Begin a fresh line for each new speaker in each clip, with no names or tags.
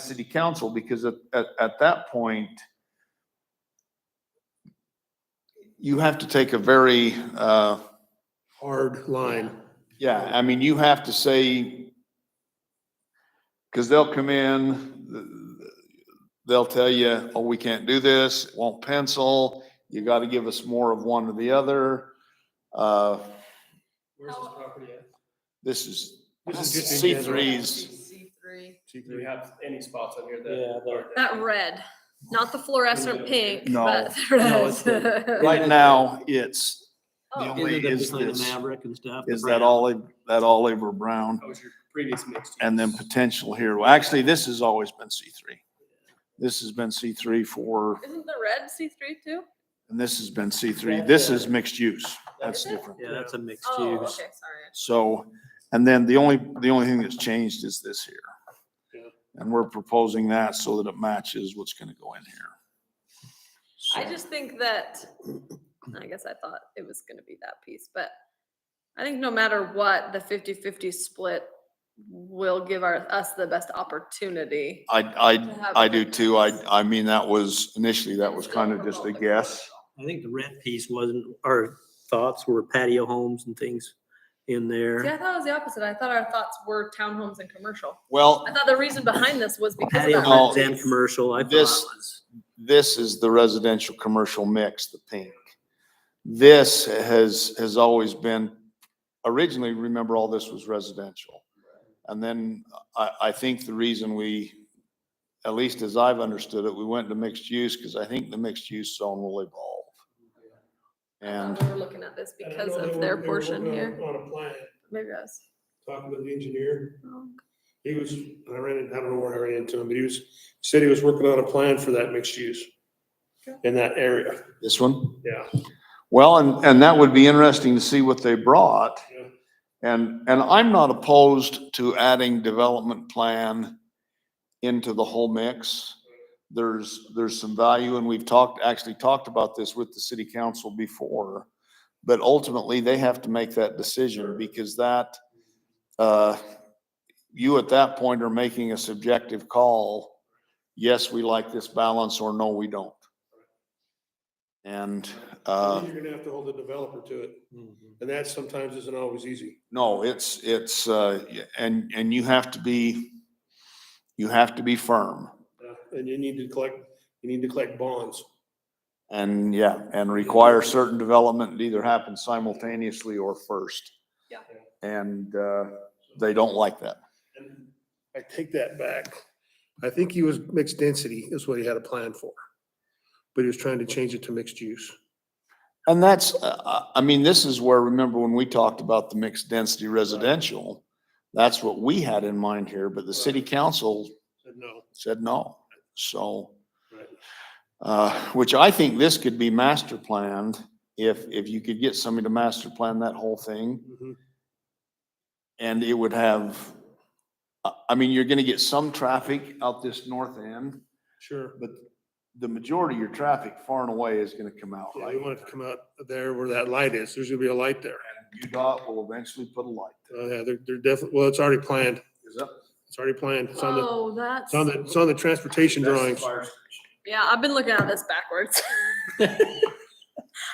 city council, because at, at, at that point, you have to take a very, uh,
hard line.
yeah, I mean, you have to say, because they'll come in, th- they'll tell you, oh, we can't do this, it won't pencil, you got to give us more of one or the other. Uh,
Where's this property at?
This is,
This is just
C
in general.
threes,
C three.
Do we have any spots on here
Yeah,
that?
the-
aren't-
That red, not the fluorescent pink,
No.
but
No,
the red.
it's the-
right now, it's, the
Oh.
only- Wait,
Ended up
is
behind the
this-
Maverick and stuff. the
is that
brand.
olive, that Oliver Brown?
That was your previous mixed.
and then
use.
potential here. Well, actually, this has always been C three. This has been C three for,
Oh, Isn't the red C three too?
and this has been C three. This is mixed use. That's
Is it?
different.
Yeah, that's a mixed
Oh, okay,
use.
sorry.
So, and then the only, the only thing that's changed is this
Yeah.
here. And we're proposing that so that it matches what's gonna go in here.
I
So-
just think that, I guess I thought it was gonna be that piece, but I think no matter what, the 50-50 split will give our, us the best opportunity.
I,
to
I,
have
Um, I
a
do
good
too. I,
mix.
I mean, that was initially, that was kind of just a guess.
I think the rent piece wasn't, our thoughts were patio homes and things in
See, I
there.
thought it was the opposite. I thought our thoughts were townhomes and commercial.
Well,
I thought the reason behind this was because of
Patio
that.
homes
homes
red
and
piece.
commercial, I thought
This-
was.
this is the residential commercial mix, the pink. This has, has always been, originally, remember, all this was residential. And then I, I think the reason we, at least as I've understood it, we went to mixed use because I think the mixed use zone will evolve.
Um,
And
we We're looking at this
And I
because
know they
of
were-
their
they were
portion
working on-
here.
On a plan,
Maybe I was.
talking with the engineer,
wrong.
he was, I ran, in- I don't know where I ran into him, but he was, said he was working on a plan for that mixed use in that area,
this one,
yeah.
well, and, and that would be interesting to see what they brought.
Yeah.
And, and I'm not opposed to adding development plan into the whole mix. There's, there's some value and we've talked, actually talked about this with the city council before. But ultimately, they have to make that decision because that, uh, you at that point are making a subjective call. Yes, we like this balance or no, we don't. And, uh,
You're gonna have to hold the developer to it,
Mhm.
and that sometimes isn't always easy.
No, it's, it's, uh, y- and, and you have to be, you have to be firm.
Yeah, And you need to collect, you need to collect bonds.
And yeah, and require certain development to either happen simultaneously or first.
Yeah.
And, uh, they don't like that.
And I take that back. I think he was mixed density is what he had a plan for. But he was trying to change it to mixed use.
And that's, uh, uh, I mean, this is where, remember when we talked about the mixed density residential? That's what we had in mind here, but the city council
Said no.
said no. So,
Right.
uh, which I think this could be master planned if, if you could get somebody to master plan that whole thing.
Mhm.
And it would have, I, I mean, you're gonna get some traffic out this north end,
Sure.
but the majority of your traffic far and away is gonna come out.
Yeah,
right
you want it to come out there where that light is. There's gonna be a light there.
there. UDOT will eventually put a light.
Oh, yeah, they're, they're definitely, well, it's already planned.
Is that?
It's already planned. It's on the,
Oh, that's,
it's on the, it's on the transportation drawings.
yeah, I've been looking at this backwards.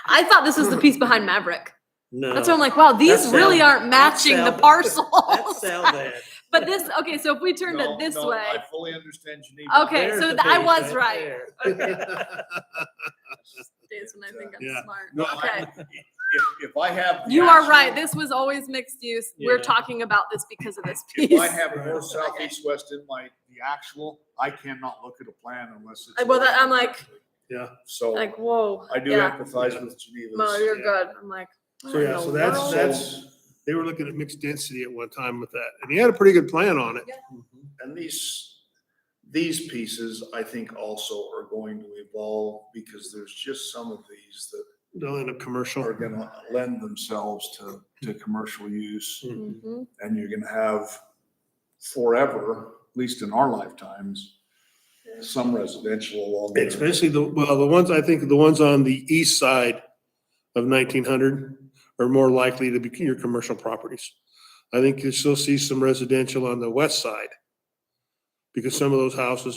I thought this was the piece behind Maverick.
No.
That's why I'm like, wow, these
That's
really
Sal-
aren't matching the
Sal-
parcels.
That's out there.
But this, okay, so if we turned it this way,
fully understand Geneva.
okay,
There's
so
the
th- I
page
was
right
right.
there.
Okay, Days when I think
Yeah.
I'm
No,
smart.
I-
Okay.
If, if I have. the
You are
actual-
right. This was always mixed use. We're
Yeah.
talking about this because of this
If
piece.
I have more southeast west in my, the actual, I cannot look at a plan unless
I-
it's.
Well, that, I'm like,
So I
like, whoa.
do
yeah.
empathize with Geneva.
No, you're
yeah.
good. I'm like. what
So,
in
yeah,
the
so that's,
world?
that's, they were looking at mixed density at one time with that. And he had a pretty good plan on it.
Mm-hmm.
And these, these pieces, I think also are going to evolve because there's just some of these that
They'll end up commercial.
are gonna lend themselves to, to commercial use.
Mhm.
Mhm.
And you're gonna have forever, at least in our lifetimes, some residential along there.
Especially the, well, the ones, I think the ones on the east side of nineteen hundred are more likely to be your commercial properties. I think you still see some residential on the west side. Because some of those houses